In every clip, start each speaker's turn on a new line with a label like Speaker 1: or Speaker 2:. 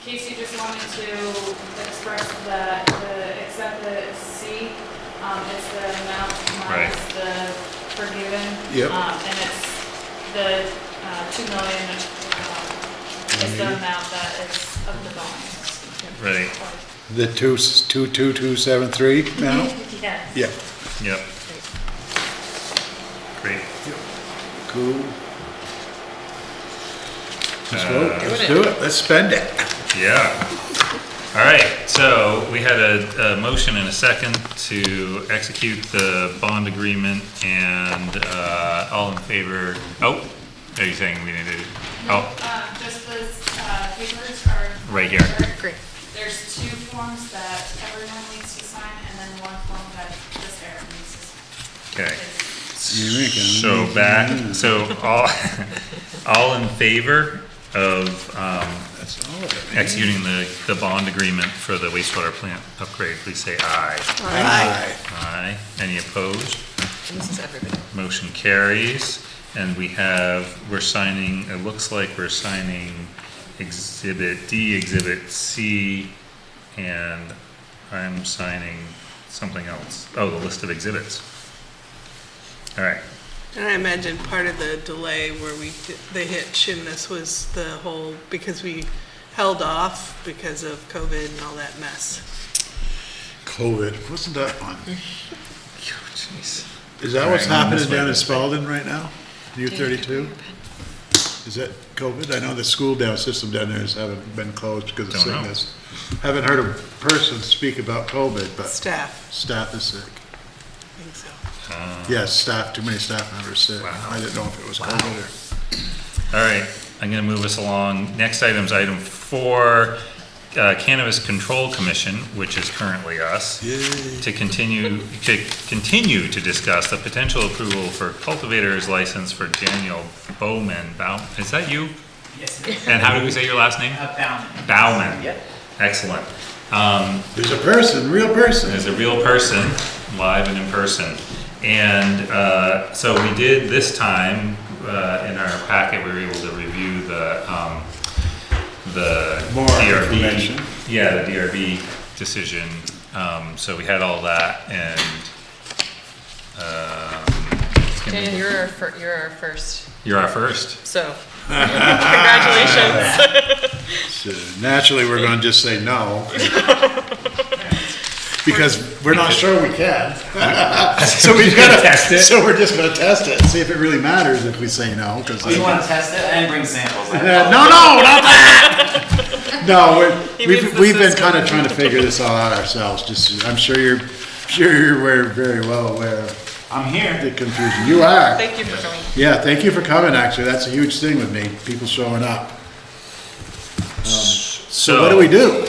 Speaker 1: Casey just wanted to express that, the, except the C, um, it's the amount
Speaker 2: Right.
Speaker 1: minus the forgiven.
Speaker 3: Yep.
Speaker 1: Um, and it's the, uh, two million, um, is the
Speaker 3: Mm-hmm.
Speaker 1: amount that is of the bonus.
Speaker 2: Right.
Speaker 3: The two, s- two, two, two, seven, three now?
Speaker 1: Yes.
Speaker 3: Yeah,
Speaker 2: Yep. Great.
Speaker 3: cool. Let's vote,
Speaker 2: Uh,
Speaker 3: let's do it, let's spend it.
Speaker 2: Yeah. All right, so we had a, a motion and a second to execute the bond agreement and, uh, all in favor, oh, are you saying we need to, oh,
Speaker 1: Uh, just those, uh, papers are.
Speaker 2: Right here.
Speaker 4: Great.
Speaker 1: There's two forms that everyone needs to sign, and then one form that just Eric needs to sign.
Speaker 2: okay.
Speaker 3: You
Speaker 2: So
Speaker 3: reckon?
Speaker 2: back, so all, all in favor of, um,
Speaker 3: That's all of it.
Speaker 2: executing the, the bond agreement for the wastewater plant upgrade, please say aye.
Speaker 3: Aye.
Speaker 2: Aye. Any opposed?
Speaker 4: And This is everybody.
Speaker 2: Motion carries, and we have, we're signing, it looks like we're signing Exhibit D, Exhibit C, and I'm signing something else. Oh, the list of exhibits. All right,
Speaker 5: And I imagine part of the delay where we, di- they hit Shimnus was the whole, because we held off because of COVID and all that mess.
Speaker 3: COVID, wasn't that fun?
Speaker 2: Oh, jeez.
Speaker 3: Is that what's
Speaker 2: Hang on,
Speaker 3: happening
Speaker 2: this way.
Speaker 3: down in Spalding right now? U thirty-two? Is that COVID? I know the school down, system down there has haven't been closed because of
Speaker 2: Don't know.
Speaker 3: sickness. Haven't heard a person speak about COVID, but
Speaker 5: Staff,
Speaker 3: staff is sick.
Speaker 5: I think so.
Speaker 3: Yes, staff, too many staff members sick.
Speaker 2: Wow.
Speaker 3: I didn't know if it was COVID or.
Speaker 2: All right, I'm gonna move us along. Next item's item four, uh, Cannabis Control Commission, which is currently us. To continue, to continue to discuss the potential approval for cultivator's license for Daniel Bowman. Bow, is that you?
Speaker 6: Yes, it is.
Speaker 2: And how do we say your last name?
Speaker 6: Uh, Bauman.
Speaker 2: Bowman.
Speaker 6: Yep.
Speaker 2: Excellent. Um,
Speaker 3: There's a person, real person.
Speaker 2: as a real person, live and in person. And uh, so we did this time, uh, in our packet, we were able to review the, um, the.
Speaker 3: More
Speaker 2: DRB
Speaker 3: information.
Speaker 2: Yeah, the DRB decision. Um, So we had all that and. um, it's gonna be-
Speaker 4: Daniel, you're our, fir- you're our first,
Speaker 2: You're our first.
Speaker 4: so congratulations.
Speaker 3: So Naturally, we're gonna just say no. Because we're not sure we can. So we've gotta.
Speaker 2: Test it.
Speaker 3: So we're just gonna test it, and see if it really matters if we say no, because.
Speaker 6: Do Oh, you want to test it? I didn't bring samples. I
Speaker 3: No, no, not that! No, we're-
Speaker 4: He reads
Speaker 3: we've,
Speaker 4: the
Speaker 3: we've been
Speaker 4: system.
Speaker 3: kinda trying to figure this all out ourselves, just, I'm sure you're, sure you're aware- very well aware of
Speaker 6: I'm here.
Speaker 3: the confusion. You are.
Speaker 4: Thank you for coming.
Speaker 3: Yeah, thank you for coming, actually, that's a huge thing with me, people showing up. So what do we do?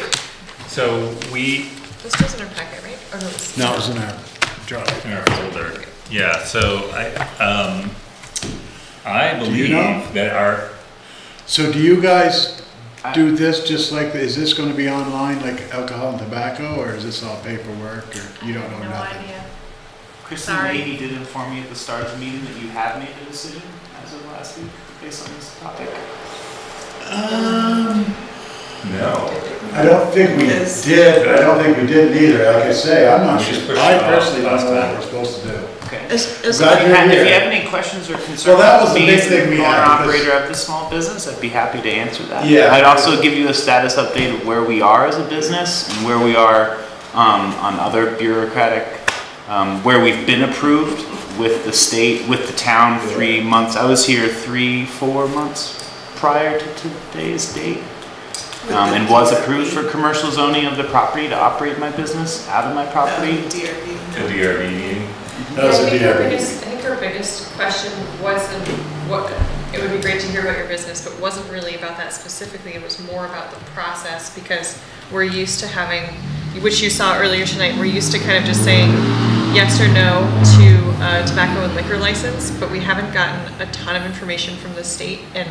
Speaker 2: So we,
Speaker 4: This was in our packet, right? Or no, this-
Speaker 3: No, it was in our drawer.
Speaker 2: in our folder. Yeah, so I, um, I
Speaker 3: you
Speaker 2: believe
Speaker 3: know?
Speaker 2: that our,
Speaker 3: So do you guys do this just like, is this gonna be online, like alcohol and tobacco, or is this all paperwork, or you don't know
Speaker 1: No
Speaker 3: nothing?
Speaker 1: idea.
Speaker 6: Kristen
Speaker 1: Sorry.
Speaker 6: Leahy did inform me at the start of the meeting that you have made a decision as of last week based on this topic.
Speaker 3: No. I don't think we did, I don't think we did either, like I say, I'm not
Speaker 2: We just
Speaker 3: sure.
Speaker 2: pushed
Speaker 3: I
Speaker 2: it off
Speaker 3: personally don't
Speaker 2: last
Speaker 3: know what
Speaker 2: time.
Speaker 3: we're supposed to do.
Speaker 6: Okay.
Speaker 5: As,
Speaker 3: as-
Speaker 5: as,
Speaker 3: Glad you're
Speaker 6: If
Speaker 3: here.
Speaker 6: you have any questions or concerns.
Speaker 3: Well, that was the big
Speaker 6: about me as
Speaker 3: thing we
Speaker 6: owner
Speaker 3: had, because-
Speaker 6: operator of the small business, I'd be happy to answer that.
Speaker 3: Yeah.
Speaker 6: I'd also give you a status update of where we are as a business and where we are um, on other bureaucratic, um, where we've been approved with the state, with the town, three months. I was here three, four months prior to today's date. um, And was approved for commercial zoning of the property to operate my business out of my property.
Speaker 5: DRB.
Speaker 2: the DRB meeting.
Speaker 3: That was
Speaker 4: I
Speaker 3: a
Speaker 4: think our
Speaker 3: DRB.
Speaker 4: biggest, I think our biggest question wasn't what, it would be great to hear about your business, but wasn't really about that specifically. It was more about the process because we're used to having, which you saw earlier tonight, we're used to kind of just saying yes or no to a tobacco and liquor license, but we haven't gotten a ton of information from the state and,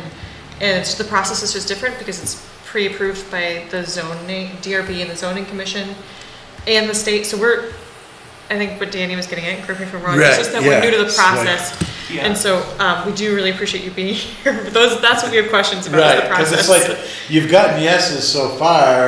Speaker 4: and it's, the process is just different because it's pre-approved by the zoning, DRB and the zoning commission and the state. So we're, I think what Danny was getting at, correct me if I'm wrong, it's
Speaker 3: Right,
Speaker 4: just that we're
Speaker 3: yeah,
Speaker 4: new to the
Speaker 3: it's like-
Speaker 4: process.
Speaker 7: Yeah.
Speaker 4: And so, um, we do really appreciate you being here, but those, that's what we have questions about, is
Speaker 3: Right,
Speaker 4: the
Speaker 3: because
Speaker 4: process.
Speaker 3: it's like, you've gotten yeses so far,